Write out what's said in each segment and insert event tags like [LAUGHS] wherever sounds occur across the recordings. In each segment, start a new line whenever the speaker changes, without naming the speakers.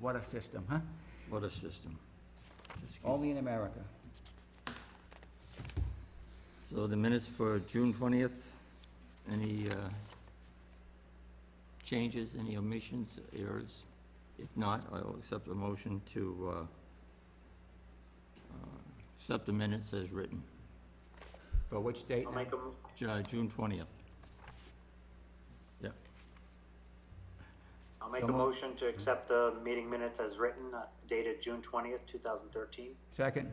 What a system, huh?
What a system. Just keep-
Only in America.
So the minutes for June twentieth, any uh, changes, any omissions, errors? If not, I'll accept the motion to uh, uh, accept the minutes as written,
For which date?
I'll make a, m-
Ju- uh, June twentieth. Yep,
I'll make a
Come on.
motion to accept the meeting minutes as written, uh, dated June twentieth, two thousand thirteen.
Second?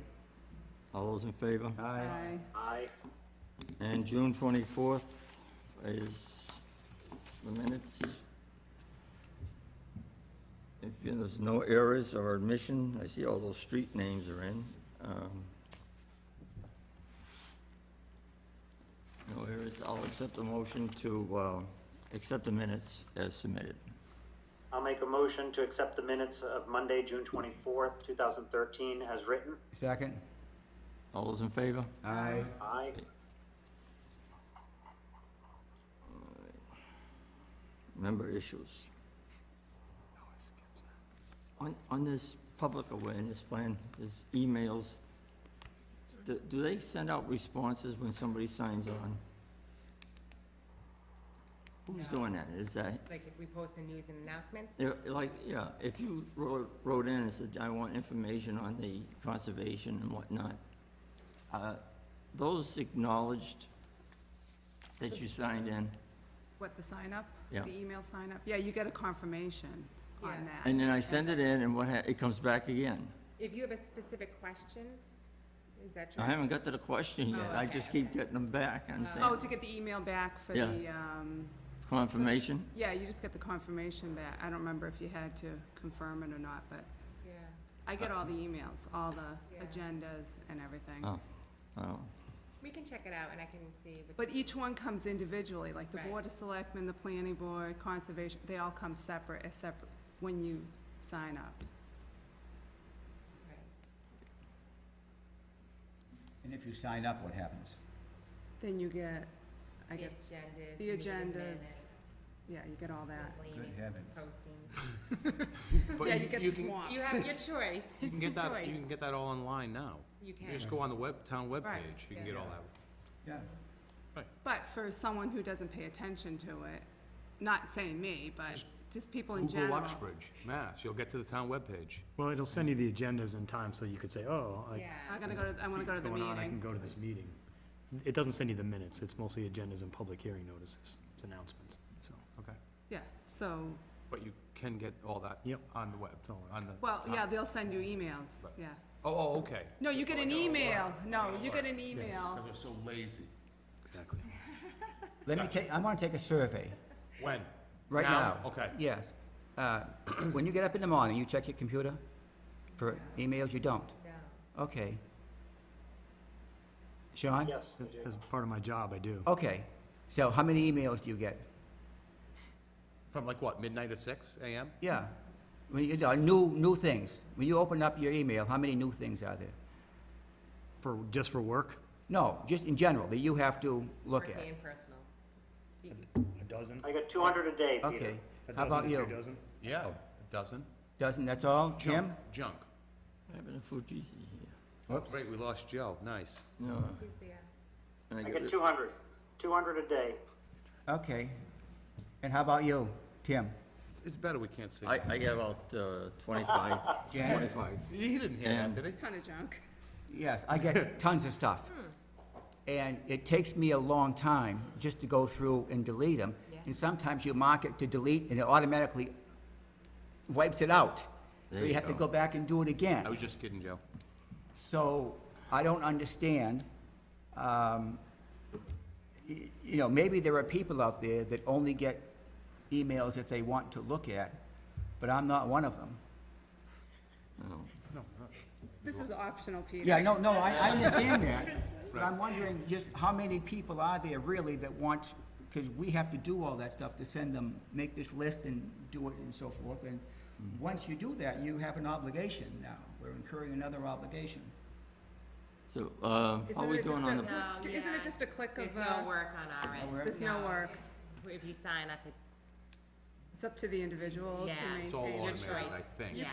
all those in favor?
Aye.
Aye.
And June twenty-fourth is the minutes. If there's no errors or admission, I see all those street names are in. um, No errors, I'll accept the motion to, uh, accept the minutes as submitted.
I'll make a motion to accept the minutes of Monday, June twenty-fourth, two thousand thirteen, as written.
Second?
All those in favor?
Aye.
Aye.
member issues. On, on this public awareness plan, there's emails. Do, do they send out responses when somebody signs on? Who's
No.
doing that? Is that,
Like if we post a news and announcements?
yeah, like, yeah, if you wrote, wrote in and said, I want information on the conservation and whatnot, uh, those acknowledged that you signed in,
What, the sign up?
Yeah.
The email sign up? Yeah, you get a confirmation
Yeah.
on that.
and then I send it in and what, ha- it comes back again.
If you have a specific question, is that true?
I haven't got to the question yet,
Oh,
I
okay,
just keep
okay.
getting them back, I'm
Oh,
saying,
to get the email back for
Yeah.
the, um,
confirmation?
yeah, you just get the confirmation back. I don't remember if you had to confirm it or not, but
Yeah.
I get all the emails, all the
Yeah.
agendas and everything.
Uh-uh. Oh, oh,
We can check it out and I can see. what's-
But each one comes individually, like the
Right.
Board of Selectmen, the Planning Board, Conservation, they all come separate, as separate, when you sign up.
Right.
And if you sign up, what happens?
Then you get, I
The
get,
agendas.
the
meeting
agendas,
minutes,
yeah, you get all that.
miscellaneous
heavens.
Postings.
But
Yeah, [LAUGHS]
you-
you get
you can-
swamped.
You have your choice.
You can get
It's your
that, you
choice.
can get that all online now.
You
You
can.
just go on the web, town
Right.
webpage, you can get all that.
Yeah.
But for someone who doesn't pay attention to it, not saying me, but just people in
Google
general.
Uxbridge, Mass, you'll get to the town webpage.
Well, it'll send you the agendas in time, so you could say, oh, I
Yeah.
I'm gonna go to, I
see
wanna go
what's
to the
going on, I can
meeting.
go to this meeting. It doesn't send you the minutes, it's mostly agendas and public hearing notices, it's announcements, so.
Okay.
Yeah, so,
But you can get all that
Yep.
on the web,
It's all
on the.
well,
town-
yeah, they'll send you emails,
Right.
yeah.
Oh, oh, okay.
No, you get an email, no, you get an email.
They're so lazy.
Exactly.
Let me take, I want to take a survey,
When?
right now.
Okay.
Yes. Uh, [CLEARS THROAT] When you get up in the morning, you check your computer for emails? You don't?
No.
Okay. Sean?
Yes, I do.
As part of my job, I do.
Okay. So how many emails do you get?
From like what, midnight to six AM?
Yeah. When you, uh, new, new things. When you open up your email, how many new things are there?
For, just for work?
No, just in general, that you have to look at.
Working and personal. Do you-
A dozen?
I got two hundred a day, Peter.
Okay. How about you?
Yeah, a dozen.
Doesn't, that's all? Jim?
Oh. Junk, Junk.
what happened to Fujitsu here?
Great, we lost Joe, nice.
No.
He's there.
and
I
get
got
it-
two hundred. Two hundred a day.
Okay. And how about you, Tim?
It's- It's better we can't see.
I, I get about uh, twenty-five,
Jan?
twenty-five.
He didn't hear that,
And-
did he?
Ton of junk.
Yes, I get tons of stuff. And it takes me a long time just to go through and delete them. And sometimes you mark it to delete and it automatically wipes it out. So
There
you
you
have to
go.
go back and do it again.
I was just kidding, Joe.
So I don't understand, um, y- you know, maybe there are people out there that only get emails if they want to look at, but I'm not one of them.
This is optional, Peter.
Yeah, no, no, I, I understand that, but I'm wondering just how many people are there really that want, because we have to do all that stuff to send them, make this list and do it and so forth, and once you do that, you have an obligation now, we're incurring another obligation.
So, uh, how are we doing on the,
No,
Isn't
yeah.
it just a click
There's
of
no
the,
work on our end.
work?
There's no work.
If- If you sign up, it's,
it's up to the individual to
Yeah.
maintain.
It's
It's all
Your
automated, I
choice.
think.
Yeah.